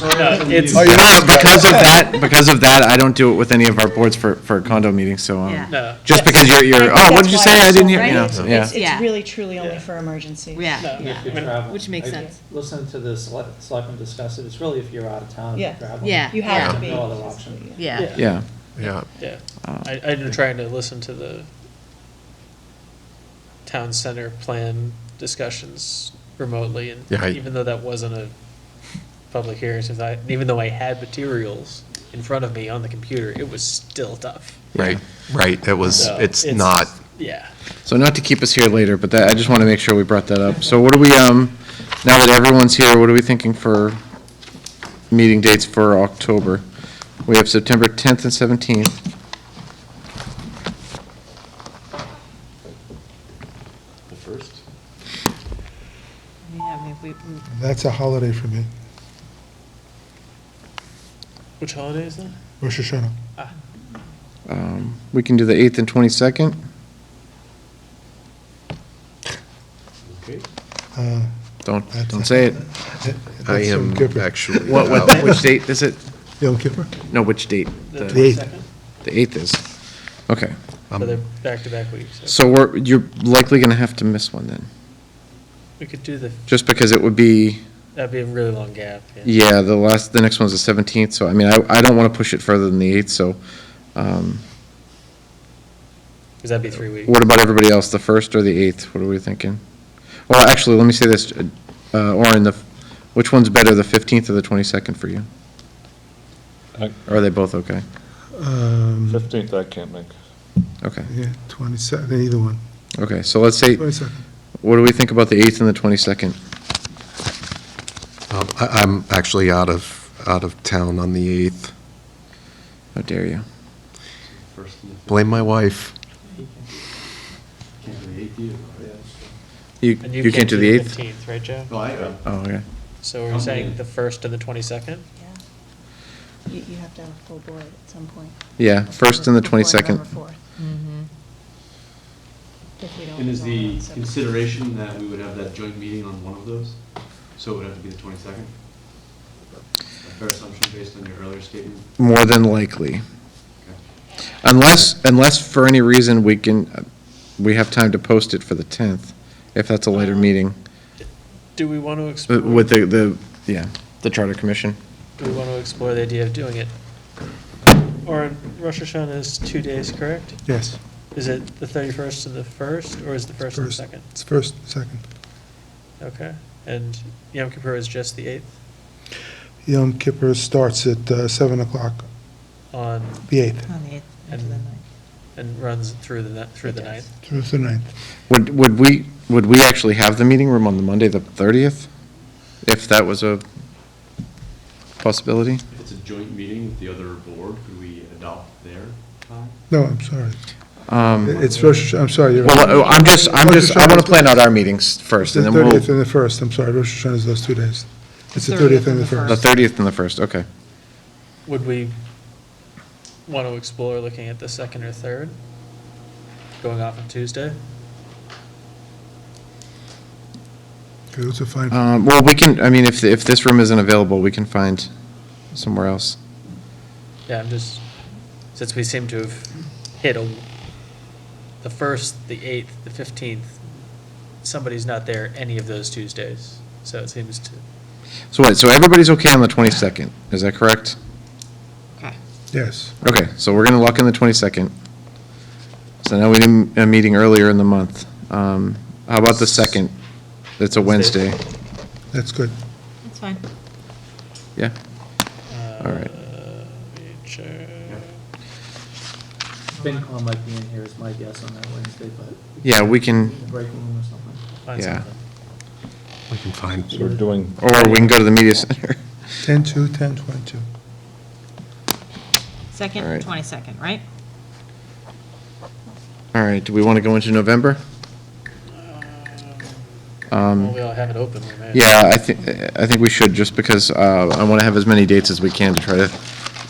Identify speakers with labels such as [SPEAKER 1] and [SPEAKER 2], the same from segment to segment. [SPEAKER 1] No, it's-
[SPEAKER 2] Oh,
[SPEAKER 1] Oh,
[SPEAKER 2] you
[SPEAKER 1] you
[SPEAKER 2] know what, because of that, because of that, I don't do it with any of our boards for, for condo meetings, so,
[SPEAKER 3] Yeah.
[SPEAKER 2] um,
[SPEAKER 1] No.
[SPEAKER 2] just because you're, you're, oh, what did you say, I didn't hear, you know,
[SPEAKER 4] Right?
[SPEAKER 2] so,
[SPEAKER 4] It's,
[SPEAKER 2] yeah.
[SPEAKER 3] Yeah.
[SPEAKER 4] it's really truly only
[SPEAKER 1] Yeah.
[SPEAKER 4] for emergencies.
[SPEAKER 3] Yeah.
[SPEAKER 1] No,
[SPEAKER 5] If you're
[SPEAKER 1] Yeah.
[SPEAKER 5] traveling.
[SPEAKER 3] Which makes
[SPEAKER 5] I
[SPEAKER 3] sense.
[SPEAKER 5] Listen to the sele- selectmen discuss it, it's really if you're out of town and
[SPEAKER 4] Yeah.
[SPEAKER 5] you're traveling.
[SPEAKER 3] Yeah.
[SPEAKER 4] You have to be.
[SPEAKER 5] There's No other option.
[SPEAKER 3] Yeah.
[SPEAKER 2] Yeah,
[SPEAKER 6] Yeah.
[SPEAKER 1] Yeah, I, I've been trying to listen to the town center plan discussions remotely, and
[SPEAKER 6] Yeah, I-
[SPEAKER 1] even though that wasn't a public hearing, since I, even though I had materials in front of me on the computer, it was still tough.
[SPEAKER 6] Right, right, it was,
[SPEAKER 1] So,
[SPEAKER 6] it's not,
[SPEAKER 1] Yeah,
[SPEAKER 2] so not to keep us here later, but that, I just wanna make sure we brought that up. So what are we, um, now that everyone's here, what are we thinking for meeting dates for October? We have September tenth and seventeenth,
[SPEAKER 7] That's a holiday for me,
[SPEAKER 1] which holiday is that?
[SPEAKER 7] Rosh Hashanah.
[SPEAKER 2] um, we can do the eighth and twenty-second,
[SPEAKER 7] Uh,
[SPEAKER 2] don't, don't say it.
[SPEAKER 7] that-
[SPEAKER 6] I
[SPEAKER 7] that's Yom
[SPEAKER 6] am
[SPEAKER 7] Kippur.
[SPEAKER 6] actually
[SPEAKER 2] What, what,
[SPEAKER 6] out.
[SPEAKER 2] which date is it?
[SPEAKER 7] Yom Kippur?
[SPEAKER 2] No, which date?
[SPEAKER 1] The
[SPEAKER 7] The eighth.
[SPEAKER 1] 22nd?
[SPEAKER 2] The eighth Um, is, okay.
[SPEAKER 1] So Oh, they're back-to-back weeks, so
[SPEAKER 2] So we're, you're likely going to have to miss one then,
[SPEAKER 1] we could do the,
[SPEAKER 2] just because it would be,
[SPEAKER 1] that'd be a really long gap, yeah.
[SPEAKER 2] yeah, the last, the next one's the seventeenth, so I mean, I, I don't want to push it further than the eighth, so, um,
[SPEAKER 1] because that'd be three weeks.
[SPEAKER 2] what about everybody else, the first or the eighth, what are we thinking? Well, actually, let me say this, uh, Orin, the, which one's better, the fifteenth or the twenty-second for you?
[SPEAKER 8] I-
[SPEAKER 2] Or Are they both okay?
[SPEAKER 7] Um,
[SPEAKER 8] 15th I can't make.
[SPEAKER 2] Okay,
[SPEAKER 7] Yeah, 22nd, either one.
[SPEAKER 2] okay, so let's say,
[SPEAKER 7] 22nd.
[SPEAKER 2] what do we think about the eighth and the twenty-second?
[SPEAKER 6] Um, I- I'm actually out of, out of town on the 8th.
[SPEAKER 2] How dare you?
[SPEAKER 6] Blame my wife.
[SPEAKER 2] You,
[SPEAKER 1] And
[SPEAKER 2] you can't do the eighth?
[SPEAKER 1] Fifteenth, right, Joe?
[SPEAKER 2] Oh, okay.
[SPEAKER 1] So we're saying the first and the twenty-second?
[SPEAKER 4] Yeah. You, you have to have a full board at some point.
[SPEAKER 2] Yeah, first and the
[SPEAKER 4] Before November
[SPEAKER 2] twenty-second.
[SPEAKER 4] 4th.
[SPEAKER 3] Mm-hmm.
[SPEAKER 4] If we don't
[SPEAKER 9] And is
[SPEAKER 4] resolve it
[SPEAKER 9] the
[SPEAKER 4] on September.
[SPEAKER 9] consideration that we would have that joint meeting on one of those? So it would have to be the 22nd? A fair assumption based on your earlier statement?
[SPEAKER 2] More than likely.
[SPEAKER 9] Okay.
[SPEAKER 2] Unless, unless for any reason we can, uh, we have time to post it for the 10th, if that's a later meeting,
[SPEAKER 1] Do we want to explore?
[SPEAKER 2] uh, with the, the, yeah, the Charter Commission.
[SPEAKER 1] Do we want to explore the idea of doing it? Or Rosh Hashanah is two days, correct?
[SPEAKER 7] Yes,
[SPEAKER 1] Is it the 31st and the 1st, or is the 1st and
[SPEAKER 7] First.
[SPEAKER 1] the 2nd?
[SPEAKER 7] it's first, second.
[SPEAKER 1] Okay, and Yom Kippur is just the 8th
[SPEAKER 7] Yom Kippur starts at uh, 7 o'clock,
[SPEAKER 1] on,
[SPEAKER 7] the 8th,
[SPEAKER 3] On the eighth,
[SPEAKER 1] and, and runs through the, ni- through the
[SPEAKER 3] It does.
[SPEAKER 1] 9th.
[SPEAKER 7] through the 9th.
[SPEAKER 2] Would, would we, would we actually have the meeting room on the Monday, the 30th? If that was a possibility?
[SPEAKER 9] If it's a joint meeting with the other board, could we adopt their time?
[SPEAKER 7] No, I'm sorry.
[SPEAKER 2] Um,
[SPEAKER 7] It's Rosh, Hashanah- I'm sorry, you're right.
[SPEAKER 2] Well, I'm just, I'm just, I want to plan out our meetings
[SPEAKER 7] It's
[SPEAKER 2] first, and
[SPEAKER 7] the
[SPEAKER 2] then we'll,
[SPEAKER 7] 30th
[SPEAKER 2] the
[SPEAKER 7] and the 1st, I'm sorry, Rosh Hashanah is those two days. It's the 30th and the 1st.
[SPEAKER 2] 30th and the 1st, okay.
[SPEAKER 1] Would we want to explore looking at the 2nd or 3rd? Going off on Tuesday?
[SPEAKER 7] Okay, those are fine.
[SPEAKER 2] Um, Well, we can, I mean, if, if this room isn't available, we can find somewhere else.
[SPEAKER 1] Yeah, I'm just, since we seem to have hit a, the first, the eighth, the fifteenth, somebody's not there any of those Tuesdays, so it seems to,
[SPEAKER 2] So wait, so everybody's okay on the 22nd, is that correct?
[SPEAKER 7] Yes,
[SPEAKER 2] Okay, so we're going to lock in the 22nd. So now we did a meeting earlier in the month. Um, How about the 2nd? It's a Wednesday.
[SPEAKER 7] that's good.
[SPEAKER 3] That's fine.
[SPEAKER 2] Yeah,
[SPEAKER 1] uh.
[SPEAKER 2] All right.
[SPEAKER 1] check.
[SPEAKER 5] FinCom might be in here is my guess on that Wednesday, but
[SPEAKER 2] yeah, we can,
[SPEAKER 5] in the break room or something.
[SPEAKER 1] Find
[SPEAKER 2] Yeah.
[SPEAKER 1] something.
[SPEAKER 6] We can
[SPEAKER 8] So we're
[SPEAKER 6] find,
[SPEAKER 8] doing,
[SPEAKER 2] or we can go to the media center.
[SPEAKER 7] 10-2, 10-22.
[SPEAKER 3] Second,
[SPEAKER 2] All right.
[SPEAKER 3] 22nd, right?
[SPEAKER 2] All right, do we want to go into November?
[SPEAKER 1] Well, we all have it open, we may.
[SPEAKER 2] Um, Yeah, I think, I think we should, just because uh, I want to have as many dates as we can to try to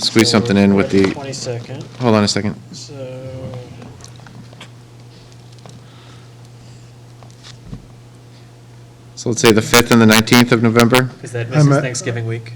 [SPEAKER 2] squeeze something in with the,
[SPEAKER 1] Twenty-second,
[SPEAKER 2] hold on a second.
[SPEAKER 1] so.
[SPEAKER 2] So let's say the 5th and the 19th of November?
[SPEAKER 1] Is that
[SPEAKER 7] I'm
[SPEAKER 1] misses
[SPEAKER 7] at-
[SPEAKER 1] Thanksgiving week?